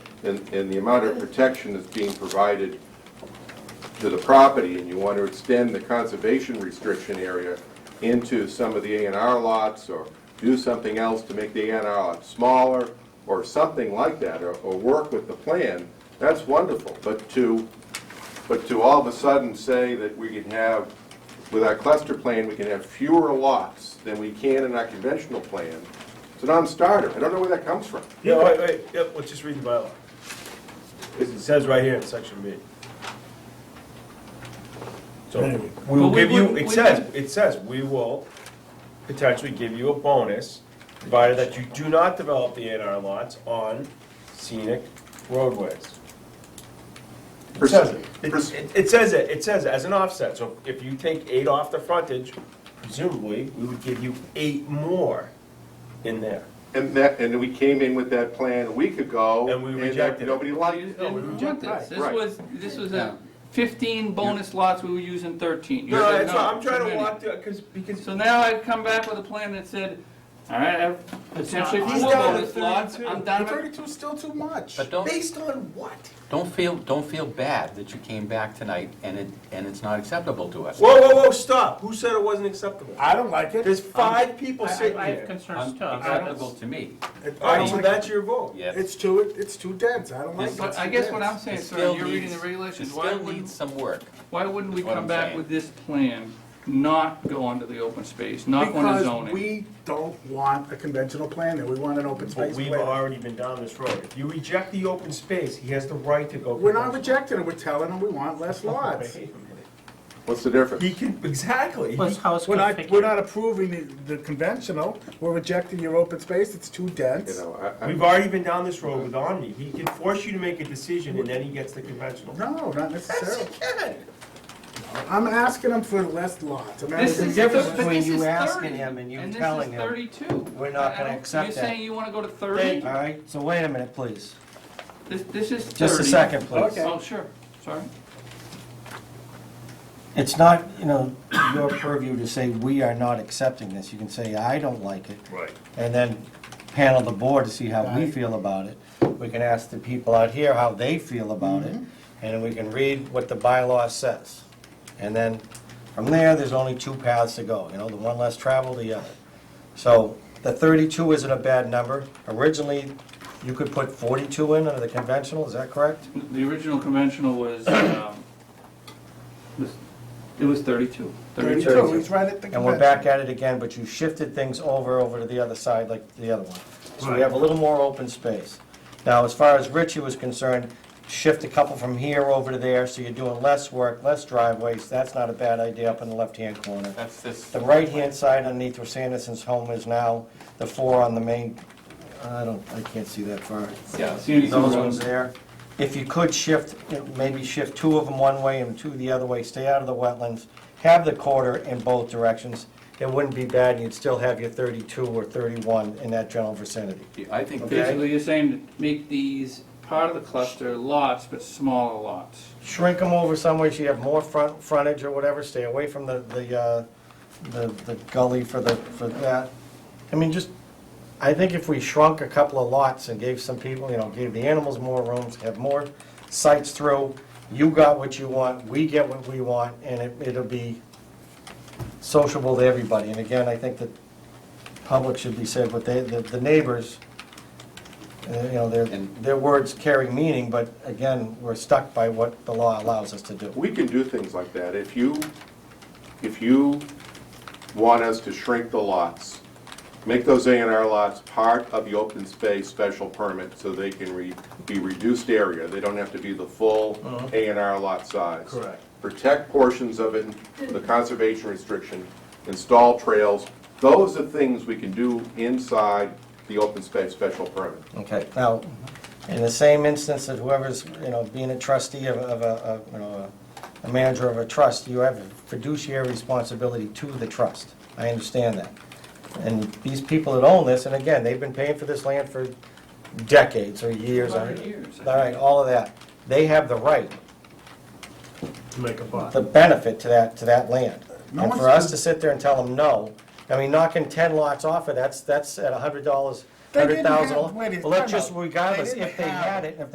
and, and the amount of protection that's being provided to the property, and you want to extend the conservation restriction area into some of the A and R lots, or do something else to make the A and R lot smaller, or something like that, or, or work with the plan, that's wonderful. But to, but to all of a sudden say that we can have, with our cluster plan, we can have fewer lots than we can in our conventional plan, it's a non-starter. I don't know where that comes from. Yeah, wait, wait, yep, let's just read the bylaw. It says right here in section B. So, we will But we give you, wouldn't- it we says, it says, we will potentially give you a bonus, provided that you do not develop the A and R lots on scenic roadways. It says it. It- Pers- It, it says it, it says as an offset, so if you take eight off the frontage, presumably, we would give you eight more in there. And that, and we came in with that plan a week ago. And we that- rejected it. Nobody liked Oh, it. didn't want this. This Right. was, this was Yeah. a fifteen bonus lots, we were using thirteen. You No, said, that's why I'm too trying to many." walk through, because, because. So now I've come back with a plan that said, all right, I have potentially He's four down to bonus lots, 32. I'm done with. Thirty-two is still too much. But don't, Based on what? don't feel, don't feel bad that you came back tonight and it, and it's not acceptable to us. Whoa, whoa, whoa, stop. Who said it wasn't acceptable? I don't like it. There's five people sitting here. concerns Unacceptable to me. It- I All don't right, so like that's it. your vote. Yeah. It's too, it's too dense, I don't like it. But It's I too guess what dense. I'm It saying, sir, still you're reading the needs- regulations, It why still wouldn't, needs some work. why wouldn't we That's what come I'm back saying. with this plan, not go onto the open space, not go into zoning? Because we don't want a conventional plan there, we want an open But space we've plan. already been down this road. If you reject the open space, he has the right to go. We're not conventional. rejecting it, we're telling them we want less lots. Wait a minute. What's the difference? He can, exactly. Plus He- house We're not, we're not configuration. approving the, the conventional, we're rejecting your open space, it's too You dense. know, I, I, We've already been down this road with Omni. He can force you to make a decision and then he gets the conventional. No, not Yes, he necessarily. can. I'm asking them for less lots. I'm not- This There's a is, difference but between this you is asking 30, him and you this telling is him, Thirty-two. "We're not I gonna don't- accept You're that." saying you wanna go to All thirty? right, so wait a minute, please. This, this is thirty. Just a second, please. Okay. Oh, sure, sorry. It's not, you know, your purview to say, "We are not accepting this." You can say, "I don't like it." Right. And then panel the board to see how we Right. feel about it. We can ask the people out here how they feel about it, and we can read what the bylaw says. And then, from there, there's only two paths to go, you know, the one less traveled, the other. So, the thirty-two isn't a bad number. Originally, you could put forty-two in under the conventional, is that correct? The original conventional was, um, was- it was thirty-two. 32, he's right at the And we're back convention. at it again, but you shifted things over, over to the other side, like the other one. So we have a little more open space. Now, as far as Richie was concerned, shift a couple from here over to there, so you're doing less work, less driveways, that's not a bad idea up in the left-hand corner. That's this, The right-hand side underneath where Sanderson's home is now, the four on the main, I don't, I can't see that far. yeah. Those ones there. If you could shift, you know, maybe shift two of them one way and two the other way, stay out of the wetlands, have the quarter in both directions, it wouldn't be bad, and you'd still have your 32 or 31 in that general vicinity. I think this, Basically, you're saying to make these part of the cluster lots, but smaller lots. Shrink them over some way so you have more front, frontage or whatever, stay away from the, the, uh, the the gully for the, for that. I mean, just, I think if we shrunk a couple of lots and gave some people, you know, gave the animals more rooms, have more sites through, you got what you want, we get what we want, and it, it'll be sociable to everybody. And again, I think that public should be said, but they, the, the neighbors, uh, you know, their, And- their words carry meaning, but again, we're stuck by what the law allows us to do. we can do things like that. If you, if you want us to shrink the lots, make those A and R lots part of the open space special permit so they can re, be reduced area. They don't have to be the full A and R lot size. Correct. Protect portions of it, the conservation restriction, install trails. Those are things we can do inside the open space special permit. Okay, now, in the same instance that whoever's, you know, being a trustee of, of a, of, you know, a a manager of a trust, you have a fiduciary responsibility to the trust. I understand that. And these people that own this, and again, they've been paying for this land for decades or years. I- Hundred years, I think. All right, all of that. They have the right To make a buck. the benefit to that, to that land. No And for one's- us to sit there and tell them no, I mean, knocking ten lots off of, that's, that's at a hundred dollars, They hundred didn't have- thousand. wait a- Well, let's time just out. They regardless, didn't if they have- had it, if